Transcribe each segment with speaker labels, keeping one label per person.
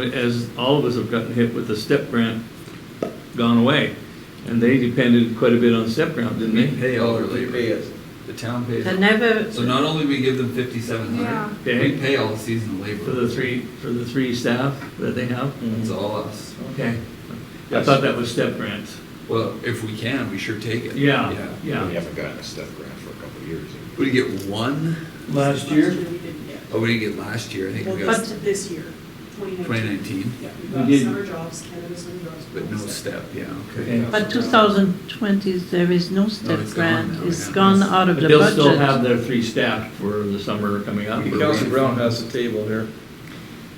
Speaker 1: as all of us have gotten hit with the step grant gone away. And they depended quite a bit on step grant, didn't
Speaker 2: We
Speaker 1: they?
Speaker 2: pay all their
Speaker 3: We
Speaker 2: labor.
Speaker 3: pay it.
Speaker 2: The town pays.
Speaker 4: The
Speaker 2: all-
Speaker 4: never,
Speaker 2: So not only we give them fifty-seven hundred, we
Speaker 1: Okay,
Speaker 2: pay all the seasonal
Speaker 1: for
Speaker 2: labor.
Speaker 1: the three, for the three staff that they have?
Speaker 2: It's all us.
Speaker 1: Okay. I
Speaker 3: Mm-hmm. Yes.
Speaker 1: thought that was step grants.
Speaker 2: Well, if we can, we sure take it.
Speaker 1: Yeah,
Speaker 5: We
Speaker 1: yeah.
Speaker 5: haven't gotten a step grant for a couple of years.
Speaker 2: We get one,
Speaker 1: Last year,
Speaker 6: we didn't get.
Speaker 2: oh, we didn't get last year, I think
Speaker 6: Well,
Speaker 2: we got
Speaker 6: this, this year, twenty
Speaker 2: twenty
Speaker 6: nineteen.
Speaker 2: nineteen,
Speaker 6: Yeah, we
Speaker 1: We
Speaker 6: got
Speaker 1: did.
Speaker 6: summer jobs, cannabis and drugs.
Speaker 2: but no step, yeah, okay.
Speaker 1: Okay.
Speaker 4: but 2020, there is no step
Speaker 2: it's gone
Speaker 4: grant,
Speaker 2: now,
Speaker 4: it's
Speaker 2: yeah.
Speaker 4: gone out of
Speaker 1: but
Speaker 4: the
Speaker 1: they'll still have their
Speaker 4: budget.
Speaker 1: three staff for the summer coming up.
Speaker 3: Council Brown has the table here.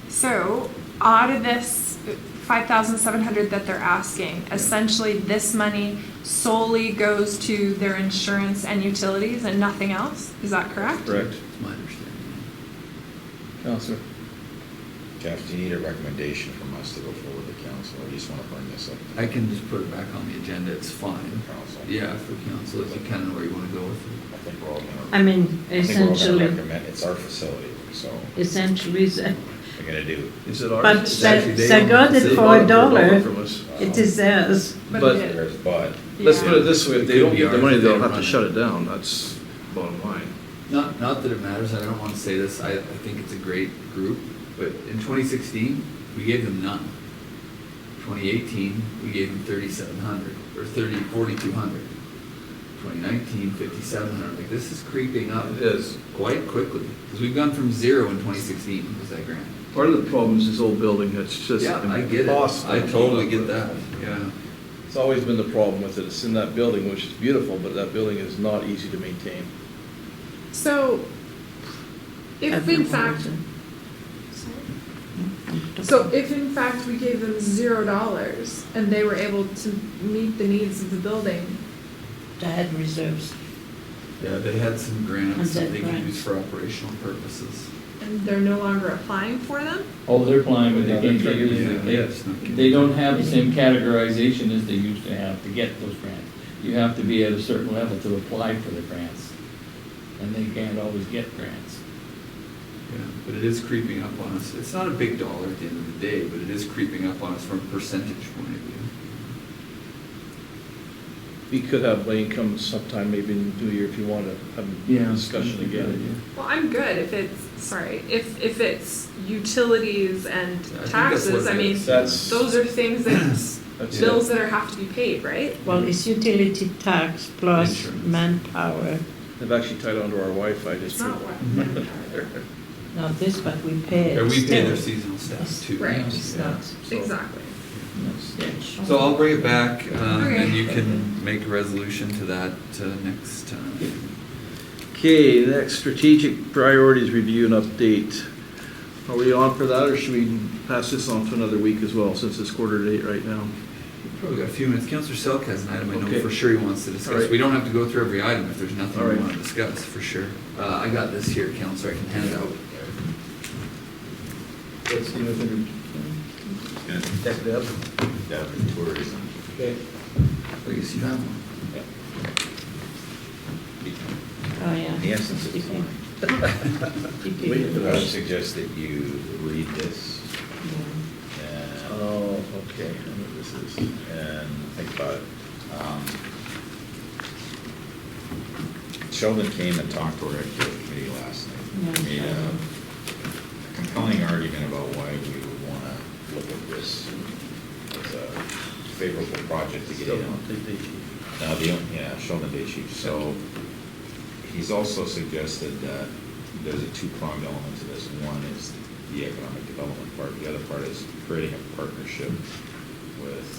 Speaker 7: So, out of this five thousand seven hundred that they're asking, essentially this money solely goes to their insurance and utilities and nothing else? Is that correct?
Speaker 3: Correct.
Speaker 2: That's my understanding.
Speaker 3: Counselor.
Speaker 5: Jeff, do you need a recommendation from us to go forward to council? I just want to bring this up. to
Speaker 2: I can just put it back on the agenda, it's fine.
Speaker 5: Council.
Speaker 2: Yeah, for council, if you kind of know where you want to go with it.
Speaker 5: I think we're all gonna.
Speaker 4: I mean,
Speaker 5: I think we're all gonna
Speaker 4: essentially,
Speaker 5: recommend- It's our facility, so
Speaker 4: essentially, it's-
Speaker 5: we're gonna do.
Speaker 3: Is it ours?
Speaker 4: But
Speaker 3: It's
Speaker 4: they-
Speaker 3: actually-
Speaker 4: they
Speaker 3: own-
Speaker 4: got it
Speaker 3: they
Speaker 4: for
Speaker 3: bought
Speaker 4: a dollar.
Speaker 3: from us.
Speaker 4: it is theirs.
Speaker 3: But-
Speaker 7: But it is.
Speaker 5: Um, There's Bud.
Speaker 3: Let's
Speaker 7: Yeah.
Speaker 3: put it this way, if they don't get the money,
Speaker 2: It
Speaker 3: they'll
Speaker 2: could be ours if they
Speaker 3: have to
Speaker 2: run it.
Speaker 3: shut it down, that's bottom line.
Speaker 2: Not, not that it matters, and I don't want to say this, I, I think it's a great group, but in twenty sixteen, we gave them none. Twenty eighteen, we gave them thirty-seven hundred, or thirty, forty-two hundred. Twenty nineteen, fifty-seven hundred, like, this is creeping up
Speaker 3: It is.
Speaker 2: quite quickly, because we've gone from zero in twenty sixteen, was that grant?
Speaker 3: Part of the problem is this old building, it's just.
Speaker 2: Yeah, I get it, I totally get that, yeah.
Speaker 8: It's always been the problem with it, it's in that building, which is beautiful, but that building is not easy to maintain.
Speaker 7: So, if in
Speaker 4: Everyone
Speaker 7: fact,
Speaker 4: is-
Speaker 7: so if in fact we gave them zero dollars and they were able to meet the needs of the building,
Speaker 4: They had reserves.
Speaker 2: Yeah, they had some
Speaker 4: And
Speaker 2: grants that
Speaker 4: said
Speaker 2: they could
Speaker 4: grants.
Speaker 2: use for operational purposes.
Speaker 7: and they're no longer applying for them?
Speaker 9: Oh, they're applying, but they
Speaker 3: Yeah,
Speaker 9: can't
Speaker 3: they're
Speaker 9: get
Speaker 3: trying
Speaker 9: it.
Speaker 3: to-
Speaker 2: Yes.
Speaker 9: They don't have the same categorization as they used to have to get those grants. You have to be at a certain level to apply for the grants, and they can't always get grants.
Speaker 2: Yeah, but it is creeping up on us. It's not a big dollar at the end of the day, but it is creeping up on us from a percentage point of view.
Speaker 8: We could have Lane come sometime, maybe in the new year, if you want to have a discussion again.
Speaker 7: Well, I'm good if it's, sorry, if, if it's utilities and
Speaker 2: Yeah, I think that's
Speaker 7: taxes,
Speaker 2: what
Speaker 7: I
Speaker 2: it
Speaker 7: mean,
Speaker 2: is.
Speaker 8: That's-
Speaker 7: those are things that,
Speaker 8: That's it.
Speaker 7: bills that are, have to be paid, right?
Speaker 4: Well, it's utility tax plus
Speaker 2: Insurance.
Speaker 4: manpower.
Speaker 8: They've actually tied onto our Wi-Fi
Speaker 7: It's
Speaker 8: just.
Speaker 7: not what.
Speaker 4: Now this, but we pay
Speaker 2: Or
Speaker 4: it
Speaker 2: we pay
Speaker 4: still.
Speaker 2: their seasonal staff too.
Speaker 7: Right.
Speaker 4: It's
Speaker 2: Yeah.
Speaker 4: not,
Speaker 7: Exactly.
Speaker 4: no stitch.
Speaker 2: So I'll bring it back, um,
Speaker 7: Okay.
Speaker 2: and you can make a resolution to that, uh, next time.
Speaker 3: Okay, next, strategic priorities review and update. Are we on for that, or should we pass this on to another week as well, since it's quarter to eight right now?
Speaker 2: We've Probably got a few minutes. Counselor Selk has an item I know
Speaker 3: Okay.
Speaker 2: for sure he wants to
Speaker 3: All
Speaker 2: discuss.
Speaker 3: right.
Speaker 2: We don't have to go through every item if there's nothing
Speaker 3: All
Speaker 2: we
Speaker 3: right.
Speaker 2: want to discuss, for sure. Uh, I got this here, Counselor, I can hand it out.
Speaker 3: Let's see if we can- Check it out.
Speaker 5: That would be tourism.
Speaker 3: Okay.
Speaker 2: I guess you have one.
Speaker 4: Oh, yeah.
Speaker 5: The essence is
Speaker 4: Okay.
Speaker 5: fine.
Speaker 4: Okay.
Speaker 5: But I would suggest that you read this Um, and,
Speaker 3: Oh, okay, I know what this is.
Speaker 5: and think about it. Um, Sheldon came and talked to our executive committee last night.
Speaker 4: Yeah.
Speaker 5: Made a compelling argument about why we would want to look at this as a favorable project to get
Speaker 3: Still
Speaker 5: in on.
Speaker 3: don't think they-
Speaker 5: Now, Uh, the, on- yeah, Sheldon Day Chief, so he's also suggested that there's a two-pronged element to this. One is the economic development part, the other part is creating a partnership with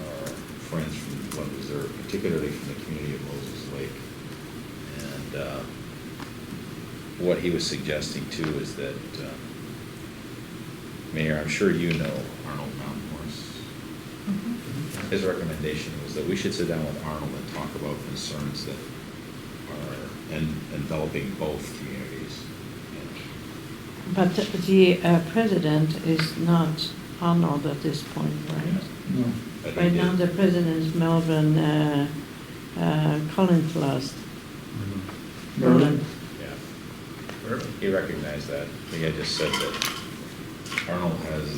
Speaker 5: our friends from the Blood Reserve, particularly from the community of Moses Lake. And uh, what he was suggesting too is that, uh, Mayor, I'm sure you know Arnold Mountain Horse. His recommendation was that we should sit down with Arnold and talk about concerns that are en- enveloping both communities.
Speaker 4: But the uh, president is not Arnold at this point, right?
Speaker 9: No.
Speaker 5: I think
Speaker 4: Right now,
Speaker 5: it-
Speaker 4: the president is Melvin uh, uh, Collins last.
Speaker 3: Mm-hmm.
Speaker 9: Merlin?
Speaker 5: Yeah. He recognized that. I think I just said that Arnold